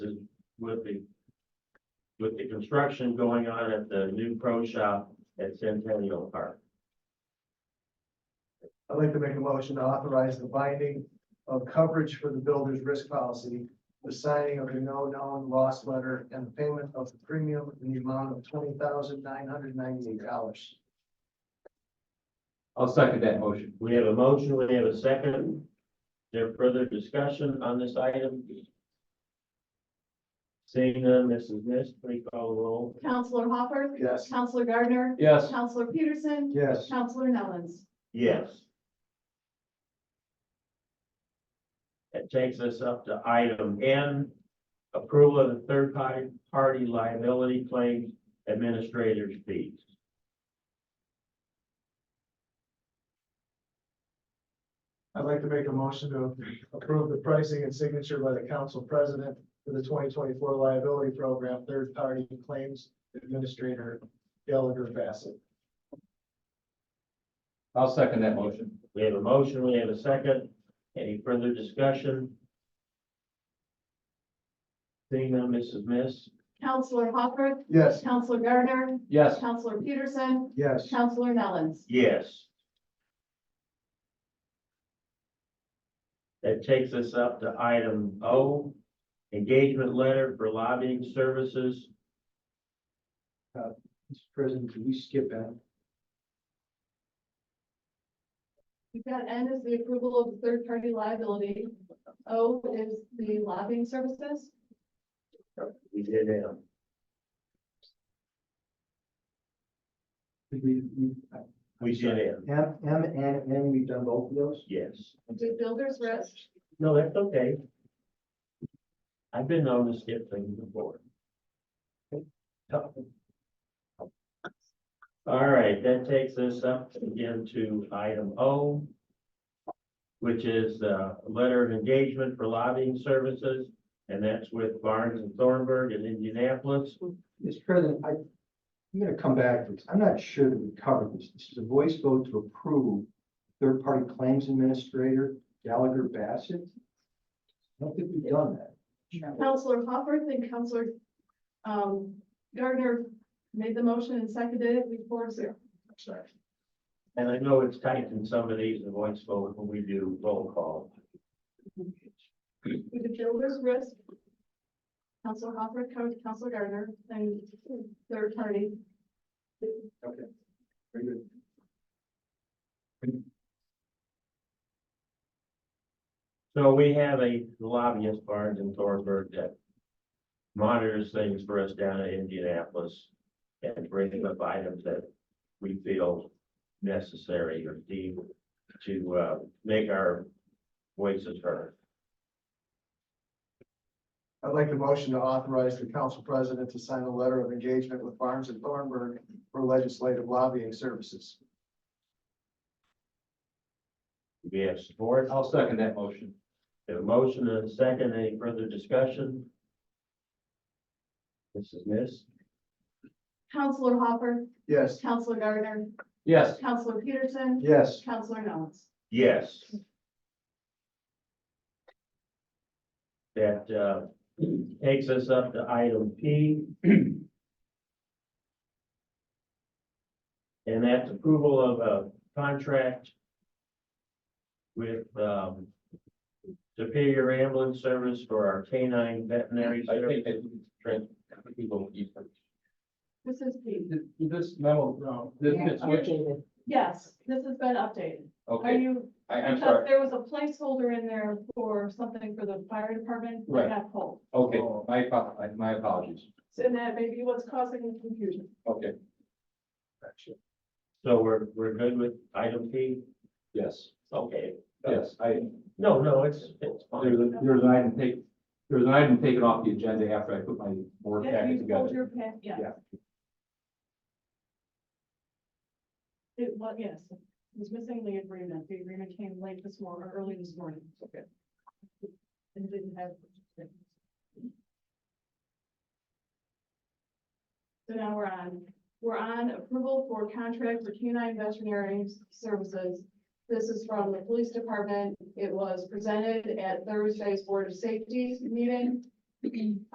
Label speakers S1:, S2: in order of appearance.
S1: with the, with the construction going on at the new pro shop at Centennial Park.
S2: I'd like to make a motion to authorize the binding of coverage for the builder's risk policy, the signing of the no known loss letter, and the payment of the premium in the amount of twenty thousand nine hundred ninety-eight dollars.
S3: I'll second that motion.
S1: We have a motion, we have a second. Is There further discussion on this item? Seeing none, Mrs. Miss, please call the roll.
S4: Counselor Hopper.
S2: Yes.
S4: Counselor Gardner.
S3: Yes,
S4: Counselor Peterson.
S2: Yes.
S4: Counselor Nellens.
S1: Yes. That takes us up to item N, approval of the third party, party liability claims administrator's fees.
S2: I'd like to make a motion to approve the pricing and signature by the council president for the twenty twenty-four liability program, third-party claims administrator Gallagher Bassett.
S3: I'll second that motion.
S1: We have a motion, we have a second. Any further discussion? Seeing none, Mrs. Miss?
S4: Counselor Hopper.
S2: Yes.
S4: Counselor Gardner.
S3: Yes,
S4: Counselor Peterson.
S2: Yes.
S4: Counselor Nellens.
S1: Yes. That takes us up to item O, engagement letter for lobbying services.
S2: Mr. President, can we skip that?
S4: We've got N is the approval of the third party liability. O is the lobbying services.
S1: We did have.
S2: We, we,
S1: We did have,
S2: M, M and N, we've done both of those?
S1: yes.
S4: We did builder's risk.
S1: No, that's okay. I've been known to skip things before. All right, that takes us up again to item O, which is uh, a letter of engagement for lobbying services, and that's with Barnes and Thornburg in Indianapolis.
S5: Mr. President, I, I'm gonna come back to this. I'm not sure that we covered this. This is a voice vote to approve third-party claims administrator Gallagher Bassett. I don't think we've done that.
S4: Counselor Hopper, then Counselor um, Gardner made the motion and seconded it. We four zero.
S2: Sorry.
S1: And I know it's tight in some of these, the voice vote when we do roll call.
S4: We did builder's risk. Counselor Hopper, Coun- Counselor Gardner, and third party.
S2: Very good.
S1: So we have a lobbyist, Barnes and Thornburg, that monitors things for us down in Indianapolis and brings up items that we feel necessary or deem to, uh, make our voices heard.
S2: I'd like the motion to authorize the council president to sign a letter of engagement with Barnes and Thornburg for legislative lobbying services.
S1: Do we have support?
S3: I'll second that motion.
S1: We have a motion and a second. Any further discussion? Mrs. Miss?
S4: Counselor Hopper,
S2: Yes.
S4: Counselor Gardner,
S3: Yes,
S4: Counselor Peterson,
S2: Yes.
S4: Counselor Nellens.
S1: Yes. That uh, takes us up to item P. And that's approval of a contract with um, Superior Ambulance Service for our canine veterinary
S3: I think
S1: service.
S3: that trans, people eat them.
S4: This is P.
S3: Did- did This memo,
S2: No.
S3: this, this, which-
S4: Yes, this has been updated. Are
S3: okay,
S4: you,
S3: I, I'm
S4: because
S3: sorry,
S4: there was a placeholder in there for something for the fire department that
S3: Right.
S4: got pulled.
S3: okay, my, apo- I- my apologies,
S4: So and that may be what's causing the confusion.
S3: okay,
S1: So we're, we're good with item P?
S3: yes,
S1: Okay.
S3: yes, I,
S1: No, no, it's, it's
S3: there's,
S1: fine.
S3: a- there's an item take, there's an item taken off the agenda after I put my board
S4: Yeah,
S3: packet
S4: you pulled
S3: together.
S4: your pen, yeah.
S3: Yeah.
S4: It was, yes, it was missing the agreement. The agreement came late this morning, or early this morning. Okay. And didn't have. So now we're on, we're on approval for contract for canine veterinary services. This is from the police department. It was presented at Thursday's Board of Safety meeting.